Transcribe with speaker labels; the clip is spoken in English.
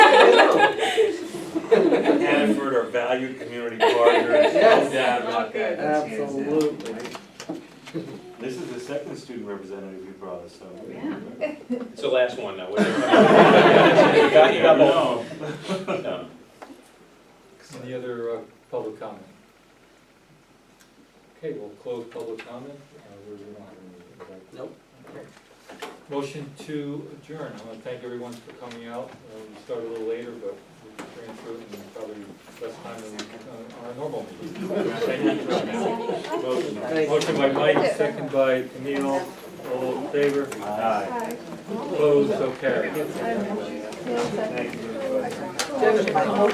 Speaker 1: valued community partners.
Speaker 2: Yes.
Speaker 1: No doubt about that.
Speaker 2: Absolutely.
Speaker 1: This is the second student representative you brought us, so.
Speaker 3: Yeah.
Speaker 4: It's the last one now. whatever. You got- you got both.
Speaker 1: No.
Speaker 4: No.
Speaker 5: Any other uh, public comment? Okay, we'll close public comment. Uh, we- we don't have any, right?
Speaker 2: Nope.
Speaker 5: Okay. Motion to adjourn. I want to thank everyone for coming out. Uh, We started a little later, but we ran through it in probably less time than uh, our normal meeting. Thank you for coming.
Speaker 2: Thank you.
Speaker 5: Motion by Mike, second by Camille. All in favor?
Speaker 1: Aye.
Speaker 5: Opposed, so carried.
Speaker 1: Thank you.